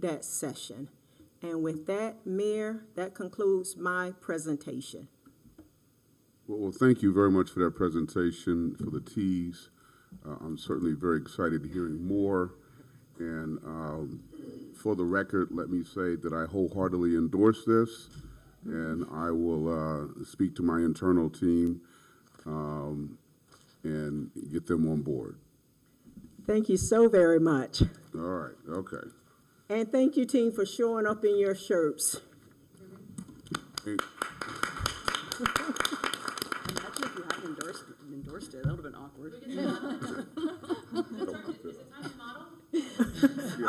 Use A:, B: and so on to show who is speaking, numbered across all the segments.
A: that session. And with that, Mayor, that concludes my presentation.
B: Well, well, thank you very much for that presentation, for the teas. Uh, I'm certainly very excited hearing more. And um, for the record, let me say that I wholeheartedly endorse this, and I will uh, speak to my internal team um, and get them on board.
A: Thank you so very much.
B: All right, okay.
A: And thank you, team, for showing up in your shirts.
B: Hey,
C: Imagine if you hadn't endorsed, endorsed it, that would have been awkward.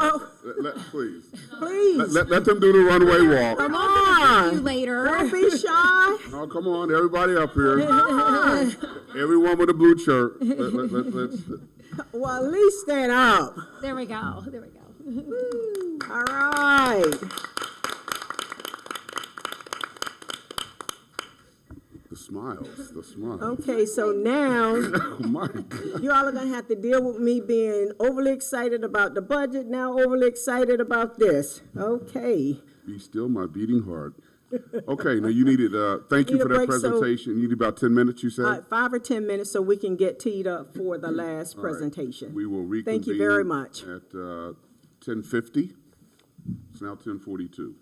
A: Oh,
B: Let, let- please, let,
A: please,
B: let- let them do the runway walk.
A: come
D: See you
A: on.
D: later.
A: Don't be shy.
B: Oh, come on, everybody up here. Everyone with a blue shirt. Let, let, let, let's,
A: Well, at least stand up.
D: There we go. There we go.
A: All right.
B: The smiles, the smiles.
A: Okay, so now
B: Oh my God.
A: you all are gonna have to deal with me being overly excited about the budget, now overly excited about this. Okay.
B: Be still my beating heart. Okay, now you needed, uh, thank you
A: Need a
B: for that
A: break, so-
B: presentation. You need about ten minutes, you
A: Uh,
B: said?
A: five or ten minutes so we can get teed up for the last
B: All right.
A: presentation.
B: We will reconvene.
A: Thank you very much.
B: At, uh, ten fifty. It's now ten forty-two.